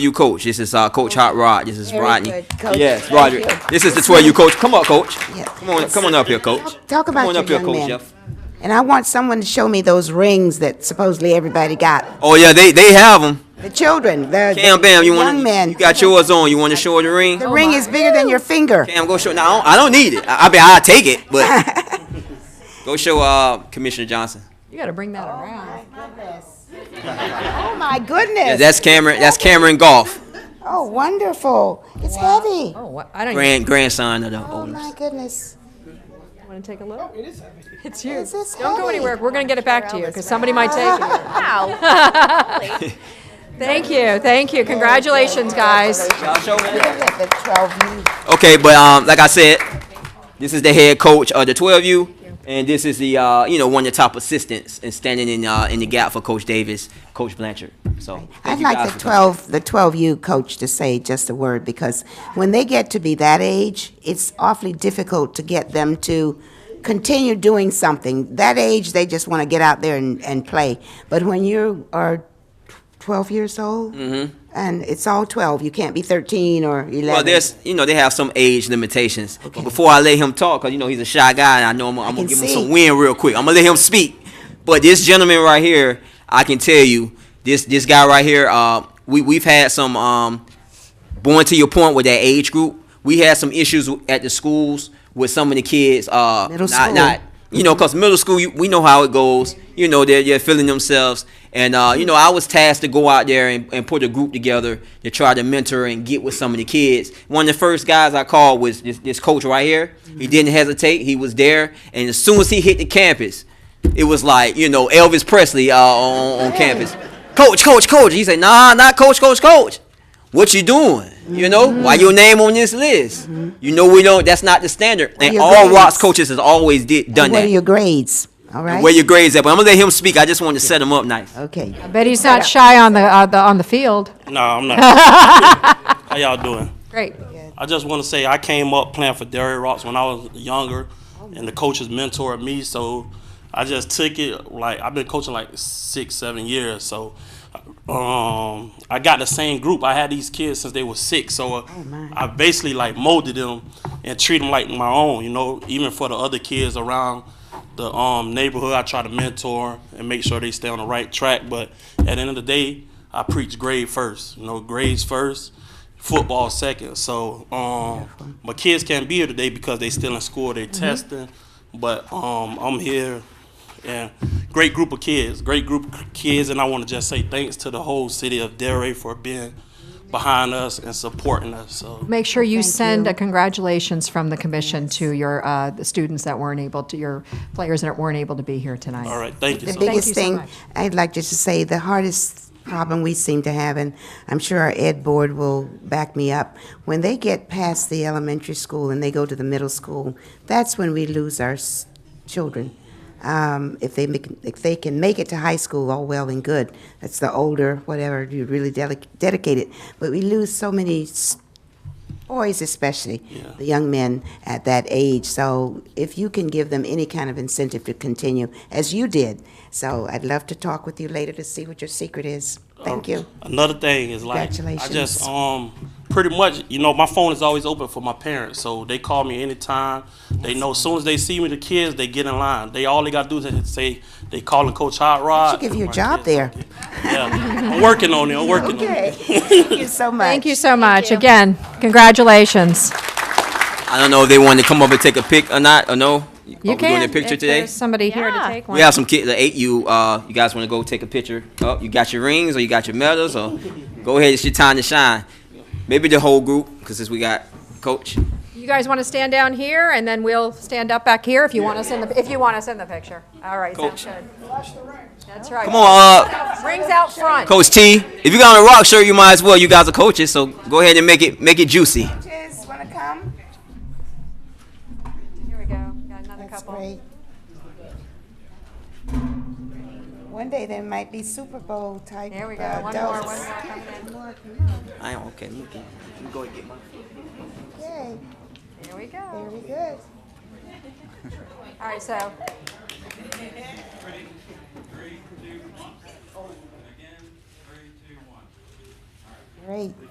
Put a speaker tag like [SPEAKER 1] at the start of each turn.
[SPEAKER 1] you coach. This is uh, Coach Hot Rod. This is
[SPEAKER 2] Very
[SPEAKER 1] Rodney.
[SPEAKER 2] good, Coach.
[SPEAKER 1] Yes,
[SPEAKER 2] Thank
[SPEAKER 1] Roger.
[SPEAKER 2] you.
[SPEAKER 1] This is the 12 you coach. Come on, coach.
[SPEAKER 2] Yeah.
[SPEAKER 1] Come on, come on up here, coach.
[SPEAKER 2] Talk
[SPEAKER 1] come
[SPEAKER 2] about
[SPEAKER 1] on
[SPEAKER 2] your
[SPEAKER 1] up here,
[SPEAKER 2] young
[SPEAKER 1] coach,
[SPEAKER 2] man.
[SPEAKER 1] Jeff.
[SPEAKER 2] And I want someone to show me those rings that supposedly everybody got.
[SPEAKER 1] Oh yeah, they they have them.
[SPEAKER 2] The children, the,
[SPEAKER 1] Cam,
[SPEAKER 2] the
[SPEAKER 1] bam. You
[SPEAKER 2] young
[SPEAKER 1] want
[SPEAKER 2] men.
[SPEAKER 1] You got yours on. You want to show her the ring?
[SPEAKER 2] The ring is bigger than your finger.
[SPEAKER 1] Cam, go show. Now I don't need it. I, I mean, I'll take it, but go show uh, Commissioner Johnson.
[SPEAKER 3] You gotta bring that around.
[SPEAKER 2] Oh my goodness.
[SPEAKER 1] Yeah, that's Cameron. That's Cameron Golf,
[SPEAKER 2] oh, wonderful. It's heavy.
[SPEAKER 3] Oh, what? I don't even
[SPEAKER 1] grand grandson of the
[SPEAKER 2] Oh my
[SPEAKER 1] owners.
[SPEAKER 2] goodness.
[SPEAKER 3] wanna take a look. Oh, It is It's you.
[SPEAKER 2] Is this
[SPEAKER 3] Don't go
[SPEAKER 2] heavy?
[SPEAKER 3] anywhere. We're gonna get it back to you, because somebody might take it.
[SPEAKER 4] Wow.
[SPEAKER 3] Thank you, thank you. Congratulations, guys.
[SPEAKER 1] Y'all show me.
[SPEAKER 2] Look at the 12 youth.
[SPEAKER 1] Okay, but um, like I said, this is the head coach of the 12U, and this is the uh, you know one of the top assistants and standing in uh, in the gap for Coach Davis, Coach Blanchard. So thank
[SPEAKER 2] I'd
[SPEAKER 1] you guys
[SPEAKER 2] like
[SPEAKER 1] for
[SPEAKER 2] the
[SPEAKER 1] coming.
[SPEAKER 2] 12, the 12U coach to say just a word because when they get to be that age, it's awfully difficult to get them to continue doing something. That age, they just want to get out there and, and play. But when you are 12 years old, and it's all 12, you can't be 13 or 11.
[SPEAKER 1] Mm-hmm. Well, there's you know they have some age limitations. But before I let him talk, cause you know he's a shy guy, and I know I'm, I'm
[SPEAKER 2] can
[SPEAKER 1] gonna give him
[SPEAKER 2] see.
[SPEAKER 1] some wind real quick. I'm gonna let him speak. But this gentleman right here, I can tell you, this this guy right here, uh, we we've had some um, going to your point with that age group, we had some issues at the schools with some of the kids. Uh,
[SPEAKER 2] Middle
[SPEAKER 1] not,
[SPEAKER 2] school.
[SPEAKER 1] not you know, cause middle school, you, we know how it goes. You know, they're, they're feeling themselves, and uh, you know, I was tasked to go out there and, and put a group together to try to mentor and get with some of the kids. One of the first guys I called was this, this coach right here. He
[SPEAKER 2] Mm-hmm.
[SPEAKER 1] didn't hesitate. He was there, and as soon as he hit the campus, it was like you know Elvis Presley uh, on, on campus. Coach, coach, coach. He said, Nah, not coach, coach, coach what you doing? You know,
[SPEAKER 2] Mm-hmm.
[SPEAKER 1] why your name on this list? You know, we don't. That's not the standard. and
[SPEAKER 2] your
[SPEAKER 1] all
[SPEAKER 2] grades?
[SPEAKER 1] Rock's coaches has always did done
[SPEAKER 2] And what
[SPEAKER 1] that.
[SPEAKER 2] are your grades? All right.
[SPEAKER 1] Where your grades at? But I'm gonna let him speak. I just want to set him up nice.
[SPEAKER 2] okay.
[SPEAKER 3] I bet he's not shy on the, uh, the, on the field.
[SPEAKER 5] No, I'm not. How y'all doing?
[SPEAKER 3] Great.
[SPEAKER 5] I just want to say I came up playing for Derry Rocks when I was younger, and the coaches mentored me, so I just took it. Like I've been coaching like six, seven years, so um, I got the same group. I had these kids since they were six, so uh,
[SPEAKER 2] my.
[SPEAKER 5] I basically like molded them and treat them like my own. You know, even for the other kids around the um, neighborhood, I try to mentor and make sure they stay on the right track. But at the end of the day, I preach grade first. You know, grades first, football second. So um, my kids can't be here today because they still in school. They testing, but um, I'm here. And great group of kids, great group of kids, and I want to just say thanks to the whole city of Delray for being behind us and supporting us. So
[SPEAKER 3] Make sure you send a congratulations from the commission to your, uh, the students that weren't able to, your players that weren't able to be here tonight.
[SPEAKER 5] All right, thank you.
[SPEAKER 2] The
[SPEAKER 5] so much.
[SPEAKER 2] biggest
[SPEAKER 3] you so
[SPEAKER 2] thing,
[SPEAKER 3] much.
[SPEAKER 2] I'd like just to say, the hardest problem we seem to have, and I'm sure our ed board will back me up, when they get past the elementary school and they go to the middle school, that's when we lose our s- children. Um, if they make, if they can make it to high school, all well and good. That's the older, whatever, you're really deli- dedicated. But we lose so many s- boys especially the young men at that age so if you can give them any kind of incentive to continue as you did so i'd love to talk with you later to see what your secret is thank you
[SPEAKER 5] Another thing is like I
[SPEAKER 2] Congratulations.
[SPEAKER 5] just um pretty much you know my phone is always open for my parents, so they call me anytime. They know as soon as they see me, the kids they get in line. They all they gotta do is say they calling Coach Hot Rod.
[SPEAKER 2] should give you a
[SPEAKER 5] My
[SPEAKER 2] job
[SPEAKER 5] kids-
[SPEAKER 2] there
[SPEAKER 5] Yeah, I'm working on it. I'm working on it.
[SPEAKER 2] okay thank you so much
[SPEAKER 3] Thank you so much. Again, congratulations.
[SPEAKER 1] Oh, I don't know if they want to come up and take a pic or not or no.
[SPEAKER 3] You
[SPEAKER 1] Are we doing
[SPEAKER 3] can,
[SPEAKER 1] a picture
[SPEAKER 3] if
[SPEAKER 1] today?
[SPEAKER 3] there's somebody here to
[SPEAKER 4] Yeah.
[SPEAKER 3] take
[SPEAKER 1] We
[SPEAKER 3] one.
[SPEAKER 1] have some kids. The eight you uh, you guys want to go take a picture? Oh, you got your rings or you got your medals or go ahead. It's your time to shine. Maybe the whole group because since we got coach.
[SPEAKER 3] You guys want to stand down here, and then we'll stand up back here if you want us in the, if you want us in the picture. All right, sounds
[SPEAKER 1] Coach.
[SPEAKER 3] good. That's right.
[SPEAKER 1] Come on, uh,
[SPEAKER 3] Rings out front.
[SPEAKER 1] Coach T, if you got on a rock shirt, you might as well. You guys are coaches, so go ahead and make it make it juicy.
[SPEAKER 2] coaches want to come
[SPEAKER 3] Here we go. Got another
[SPEAKER 2] that's
[SPEAKER 3] couple.
[SPEAKER 2] great one day there might be super bowl type
[SPEAKER 3] There we go.
[SPEAKER 2] uh,
[SPEAKER 3] One more,
[SPEAKER 2] adults.
[SPEAKER 3] one more coming in.
[SPEAKER 1] I am okay. Let me, get- let me go and get mine.
[SPEAKER 2] okay
[SPEAKER 3] Here we go.
[SPEAKER 2] very good
[SPEAKER 3] All right, so.
[SPEAKER 6] Three, two, one. Again, three, two, one. All right.
[SPEAKER 2] Great.